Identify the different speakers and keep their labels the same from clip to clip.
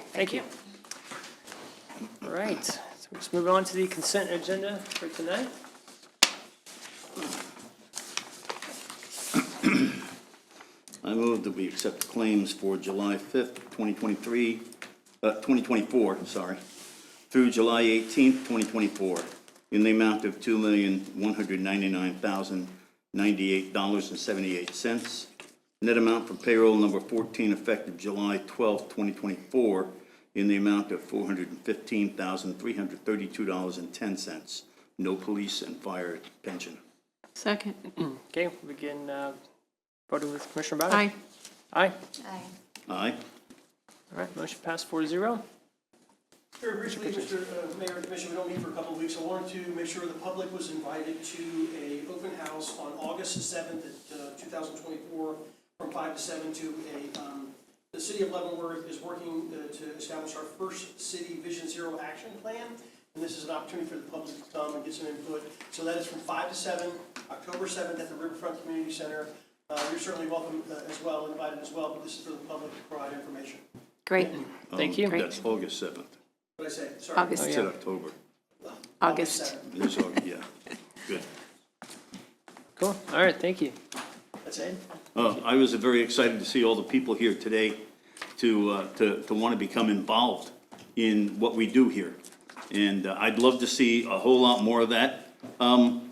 Speaker 1: Thank you. All right, so let's move on to the consent agenda for tonight.
Speaker 2: I move that we accept claims for July 5th, 2023, uh, 2024, sorry, through July 18th, 2024, in the amount of $2,199,098.78. Net amount for payroll number 14 effective July 12th, 2024, in the amount of $415,332.10. No police and fire pension.
Speaker 3: Second.
Speaker 1: Okay, we'll begin uh, voting with Commissioner Bowden.
Speaker 3: Aye.
Speaker 1: Aye.
Speaker 4: Aye.
Speaker 2: Aye?
Speaker 1: All right, motion passed four zero.
Speaker 5: Very briefly, Mr. uh, Mayor and Commission, we don't meet for a couple of weeks. I wanted to make sure the public was invited to a open house on August seventh, uh, two thousand twenty-four, from five to seven to a, um, the city of Leavenworth is working uh, to establish our first city Vision Zero Action Plan. And this is an opportunity for the public to come and get some input. So that is from five to seven, October seventh at the Riverfront Community Center. Uh, you're certainly welcome uh, as well, invited as well, but this is for the public to provide information.
Speaker 3: Great.
Speaker 1: Thank
Speaker 2: Um,
Speaker 1: you. Oh,
Speaker 2: That's August 7th.
Speaker 5: What did I say? Sorry.
Speaker 2: I
Speaker 3: August,
Speaker 2: said October.
Speaker 3: August.
Speaker 5: 7th.
Speaker 2: It's August, yeah. Good.
Speaker 1: Cool, all right, thank you.
Speaker 5: That's it?
Speaker 2: Uh, I was very excited to see all the people here today to, uh, to, to want to become involved in what we do here. And uh, I'd love to see a whole lot more of that. Um,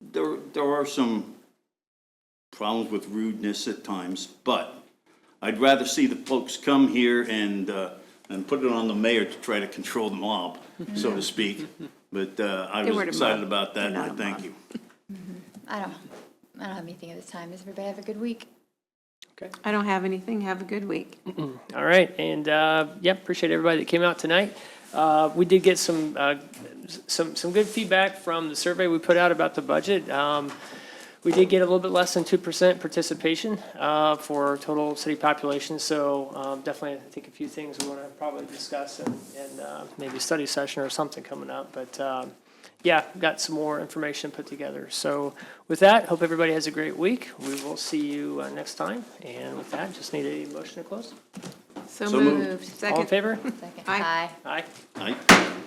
Speaker 2: There, there are some problems with rudeness at times, but I'd rather see the folks come here and, uh, and put it on the mayor to try to control the mob, so to speak. But uh, I
Speaker 3: They
Speaker 2: was
Speaker 3: weren't a mob.
Speaker 2: excited about that, and
Speaker 3: They're
Speaker 2: I
Speaker 3: not a
Speaker 2: thank
Speaker 3: mob.
Speaker 2: you.
Speaker 4: I don't, I don't have anything at this time. Does everybody have a good week?
Speaker 3: I don't have anything. Have a good week.
Speaker 1: All right, and, uh, yeah, appreciate everybody that came out tonight. Uh, We did get some, uh, s- some, some good feedback from the survey we put out about the budget. Um, We did get a little bit less than 2% participation uh, for total city population, so um, definitely, I think a few things we want to probably discuss and, and uh, maybe a study session or something coming up, but um, yeah, got some more information put together. So with that, hope everybody has a great week. We will see you uh, next time, and with that, just need a motion to close.
Speaker 3: So
Speaker 2: So moved.
Speaker 3: moved.
Speaker 1: All in
Speaker 3: Second.
Speaker 1: favor?
Speaker 4: Second.
Speaker 3: Aye.
Speaker 4: Aye.
Speaker 1: Aye.
Speaker 2: Aye.